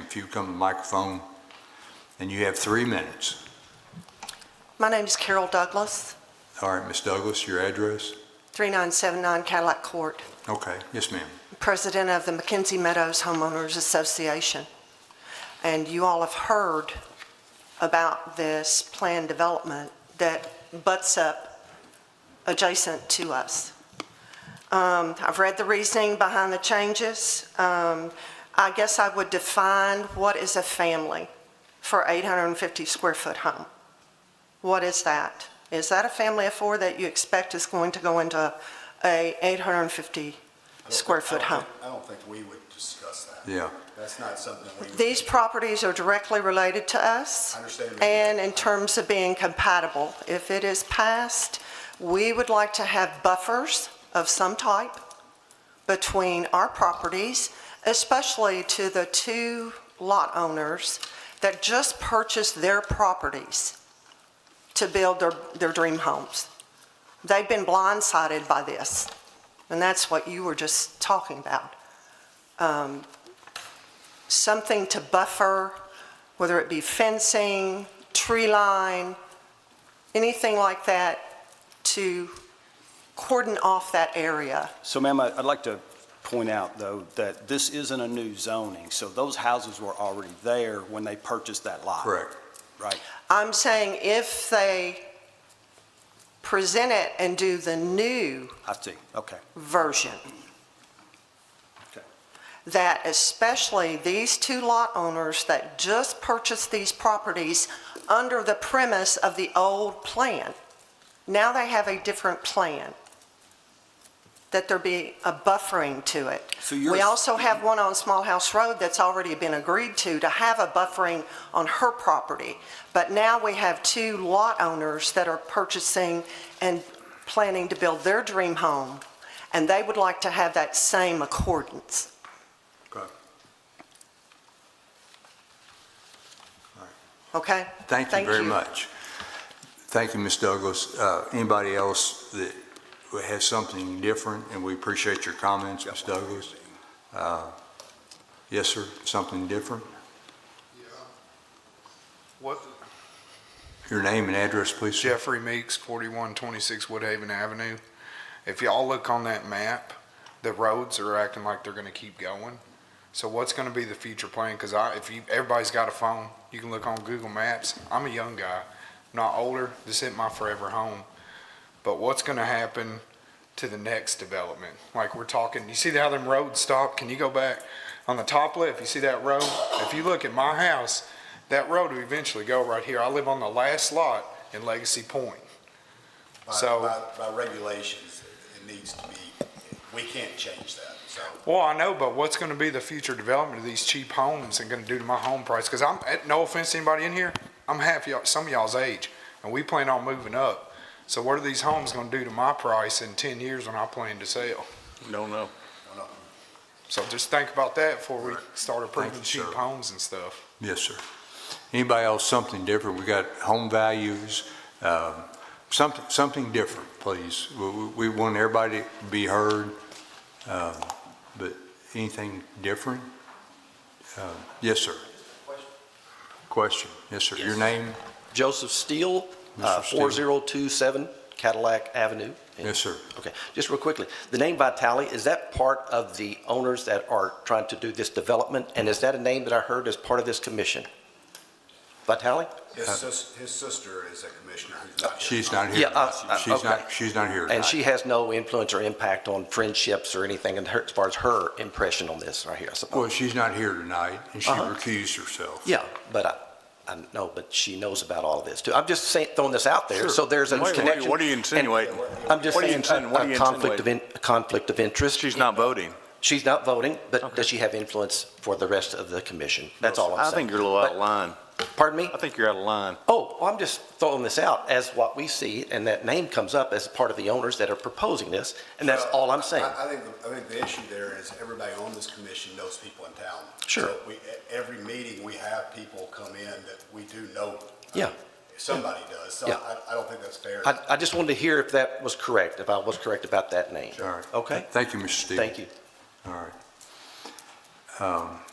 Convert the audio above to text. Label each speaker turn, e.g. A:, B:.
A: if you come to the microphone, and you have three minutes.
B: My name is Carol Douglas,
A: All right, Ms. Douglas, your address?
B: 3979 Cadillac Court,
A: Okay, yes, ma'am.
B: president of the McKenzie Meadows Homeowners Association. And you all have heard about this planned development that butts up adjacent to us. Um, I've read the reasoning behind the changes. Um, I guess I would define what is a family for 850 square foot home. What is that? Is that a family of four that you expect is going to go into a 850 square foot home?
C: I don't think we would discuss that.
A: Yeah,
C: That's not something we, would-
B: These properties are directly related to us.
C: I understand. that.
B: And in terms of being compatible, if it is passed, we would like to have buffers of some type between our properties, especially to the two lot owners that just purchased their properties to build their, their dream homes. They've been blindsided by this, and that's what you were just talking about. Um, Something to buffer, whether it be fencing, tree line, anything like that to cordon off that area.
D: So ma'am, I- I'd like to point out, though, that this isn't a new zoning, so those houses were already there when they purchased that lot.
A: correct.
D: Right.
B: I'm saying if they present it and do the new
D: I see, okay.
B: version,
D: Okay.
B: that especially these two lot owners that just purchased these properties under the premise of the old plan, now they have a different plan, that there be a buffering to it.
D: So you're-
B: We also have one on Small House Road that's already been agreed to, to have a buffering on her property. But now we have two lot owners that are purchasing and planning to build their dream home, and they would like to have that same accordance.
A: Okay.
B: Okay?
A: Thank you very much. Thank you, Ms. Douglas. Uh, Anybody else that has something different, and we appreciate your comments, Ms. Douglas? Uh, Yes, sir, something different?
E: What,
A: Your name and address, please, sir?
E: Jeffrey Meeks, forty-one twenty-six Woodhaven Avenue. If y'all look on that map, the roads are acting like they're gonna keep going. So what's gonna be the future plan? Cause I, if you, everybody's got a phone, you can look on Google Maps. I'm a young guy, not older. This ain't my forever home. But what's gonna happen to the next development? Like we're talking, you see how them roads stop? Can you go back on the top left? You see that road? If you look at my house, that road will eventually go right here. I live on the last lot in Legacy Point.
C: by,
E: so-
C: by- by regulations, it needs to be, we can't change that, so.
E: Well, I know, but what's going to be the future development of these cheap homes and going to do to my home price? Because I'm, eh, no offense to anybody in here, I'm half y'all, some of y'all's age, and we plan on moving up. So what are these homes going to do to my price in ten years when I plan to sell?
F: Don't know.
E: So just think about that before we start approving
A: Thank you,
E: cheap
A: sir.
E: homes and stuff.
A: Yes, sir. Anybody else, something different? We got home values, um, something, something different, please. We- We we want everybody to be heard, um, but anything different? Um, Yes, sir. Question, yes, sir. Your
F: Yes.
A: name?
F: Joseph Steele, uh,
A: Mr. Steele.
F: 4027 Cadillac Avenue.
A: Yes, sir.
F: Okay, just real quickly, the name Vitale, is that part of the owners that are trying to do this development? And is that a name that I heard as part of this commission? Vitale?
C: His sis, his sister is a commissioner who's not here.
A: She's not here.
F: Yeah, uh, uh,
A: She's not,
F: okay.
A: she's not here.
F: And she
A: tonight.
F: has no influence or impact on friendships or anything in her- as far as her impression on this right here, I
A: Well,
F: suppose?
A: she's not here tonight, and she
F: Uh-huh.
A: recused herself.
F: Yeah, but I, I know, but she knows about all of this too. I'm just saying, throwing this out there, Sure. so there's a
G: Wait, wait,
F: connection.
G: what are you
F: and-
G: insinuating?
F: I'm just
G: What are you
F: saying,
G: insin-
F: a
G: what are you
F: a conflict of, in- a conflict of interest.
G: She's not voting.
F: She's not voting, but
G: Okay.
F: does she have influence for the rest of the commission? That's all I'm
G: I
F: saying.
G: think you're a little out of
F: But-
G: line.
F: Pardon me?
G: I think you're out of line.
F: Oh, well, I'm just throwing this out as what we see, and that name comes up as part of the owners that are proposing this, and that's
C: Well,
F: all I'm
C: I-
F: saying.
C: I I think, the- I think the issue there is everybody on this commission knows people in town.
F: Sure.
C: So we, e- every meeting, we have people come in that we do know.
F: Yeah.
C: Somebody does, so
F: Yeah.
C: I, I don't think that's fair.
F: I, I just wanted to hear if that was correct, if I was correct about that name.
A: All right.
F: Okay?
A: Thank you, Mr. Steele.
F: Thank you.
A: All right. Um,